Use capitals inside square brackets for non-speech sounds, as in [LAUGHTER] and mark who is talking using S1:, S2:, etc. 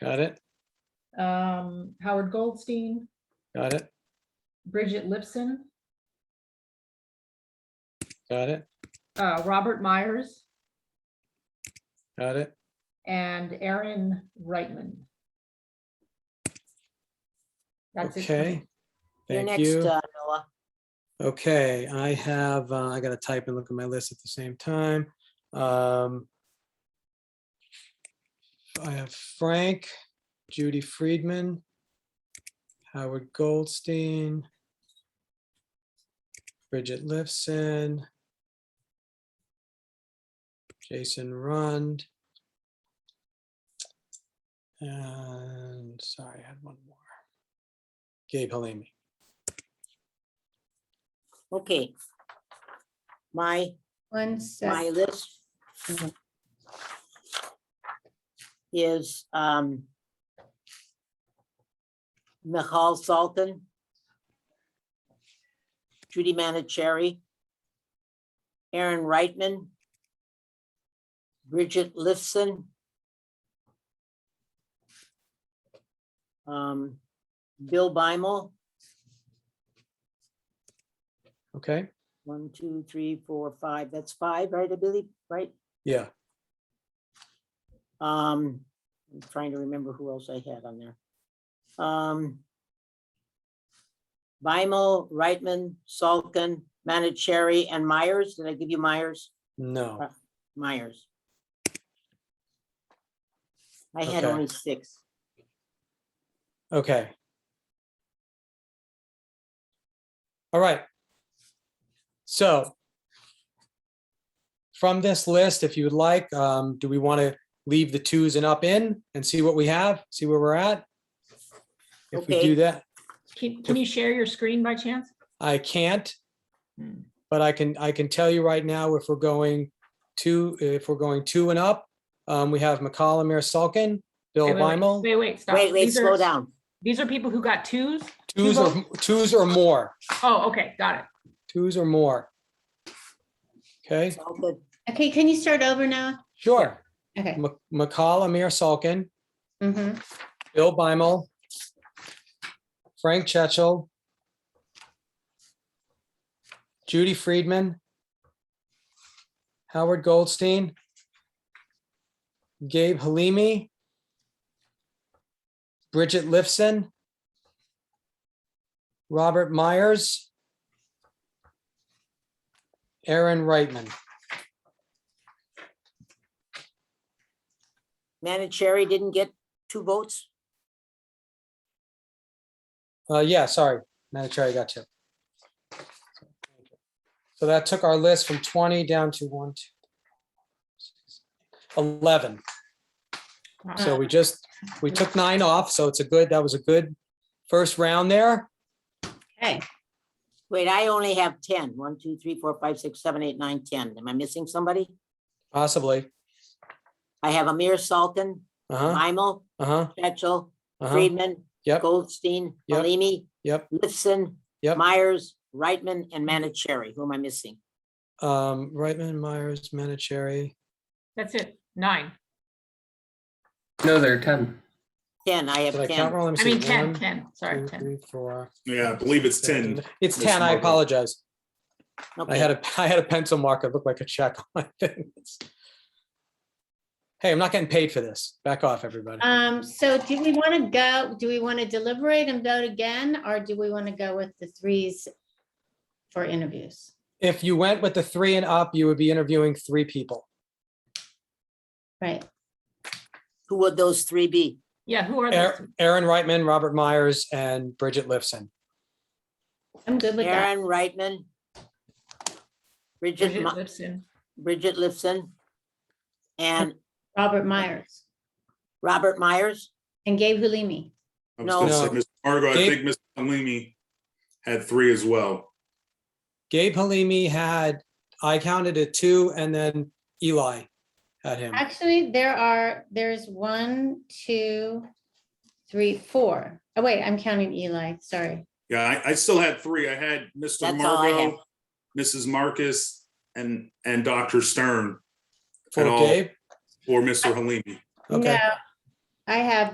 S1: Got it,
S2: um, Howard Goldstein,
S1: got it,
S2: Bridget Lipson,
S1: got it,
S2: uh, Robert Myers,
S1: got it.
S2: and Aaron Reitman. That's it. for me.
S1: Okay.
S3: You're
S1: Thank
S3: next,
S1: you.
S3: uh, Noah.
S1: Okay, I have, uh, I gotta type and look at my list at the same time. Um, I have Frank, Judy Friedman, Howard Goldstein, Bridget Lifson, Jason Rund. And sorry, I had one more. Gabe Halimi.
S3: Okay. My,
S4: One
S3: my
S4: sec,
S3: list
S4: Mhm.
S3: is, um, Michal Salton, Judy Manicherry, Aaron Reitman, Bridget Lifson, um, Bill Bimel,
S1: Okay,
S3: One, two, three, four, five. That's five, right, I believe, right?
S1: yeah.
S3: Um, I'm trying to remember who else I had on there. Um. Bimal, Reitman, Salkin, Manicherry, and Myers. Did I give you Myers?
S1: No,
S3: Uh, Myers. I had
S1: Okay.
S3: only six.
S1: okay. All right. So from this list, if you would like, um, do we want to leave the twos and up in and see what we have, see where we're at? If we
S3: Okay.
S1: do that,
S2: Can, can you share your screen by chance?
S1: I can't,
S2: Hmm.
S1: but I can, I can tell you right now if we're going two, if we're going two and up, um, we have McCollum, Mayor Salkin, Bill
S2: Wait, wait, wait,
S1: Bimal,
S2: Wait, wait, stop.
S3: Wait, wait,
S2: These are-
S3: slow down.
S2: These are people who got twos?
S1: twos or, twos or more,
S2: Oh, okay, got it.
S1: twos or more. Okay,
S3: Salkin,
S4: okay, can you start over now?
S1: sure.
S4: Okay.
S1: Mc- McCall Amir Salkin,
S4: mhm.
S1: Bill Bimel, Frank Chechel, Judy Friedman, Howard Goldstein, Gabe Halimi, Bridget Lifson, Robert Myers, Aaron Reitman.
S3: Manicherry didn't get two votes.
S1: Uh, yeah, sorry, Madam Chair, I got you. So that took our list from twenty down to one, two, six, eleven. So we just, we took nine off, so it's a good, that was a good first round there.
S4: Okay,
S3: Wait, I only have 10. One, two, three, four, five, six, seven, eight, nine, 10. Am I missing somebody?
S1: Possibly.
S3: I have Amir Salton,
S1: Uh-huh,
S3: Imel,
S1: uh-huh,
S3: Betchel,
S1: uh-huh.
S3: Friedman,
S1: Yep,
S3: Goldstein,
S1: Yep.
S3: Halimi,
S1: yep.
S3: Lifson,
S1: Yep.
S3: Myers, Reitman, and Manicherry. Who am I missing?
S1: Um, Reitman, Myers, Manicherry.
S2: That's it, nine.
S5: No, there are 10.
S3: 10, I
S1: Did I
S3: have
S1: count
S3: 10.
S1: wrong? Let me
S2: I
S1: see.
S2: mean, 10,
S1: One,
S2: 10, sorry,
S1: two,
S2: 10.
S1: three, four,
S6: Yeah, I believe it's
S1: seven,
S6: 10.
S1: eight. It's
S6: Miss
S1: ten, I
S6: Margot.
S1: apologize. I had
S3: Okay,
S1: a, [LAUGHS] I had a pencil mark. It looked like a check on my [LAUGHS] fingers. Hey, I'm not getting paid for this. Back off, everybody.
S4: um, so do we want to go, do we want to deliberate and vote again, or do we want to go with the threes for interviews?
S1: If you went with the three and up, you would be interviewing three people.
S4: Right,
S3: who would those three be?
S2: Yeah, who are those?
S1: Aaron
S2: two?
S1: Aaron Reitman, Robert Myers, and Bridget Lifson.
S4: I'm good with that.
S3: Aaron Reitman, Bridget,
S2: Bridget
S3: Mi-
S2: Lipson.
S3: Bridget Lifson, and
S4: Robert Myers
S3: Robert Myers?
S4: and Gabe Halimi.
S6: I was gonna say,
S1: No.
S6: Ms. Margot, I
S1: Dave-
S6: think Ms. Halimi had three as well.
S1: Gabe Halimi had, I counted it two, and then Eli had him.
S4: Actually, there are, there's one, two, three, four. Oh, wait, I'm counting Eli, sorry.
S6: Yeah, I, I still had three. I had Mr.
S3: That's all I
S6: Margot, Mrs. Marcus, and, and Dr. Stern
S1: For
S6: all.
S1: Gabe?
S6: or Mr. Halimi.
S1: Okay.
S4: No, I have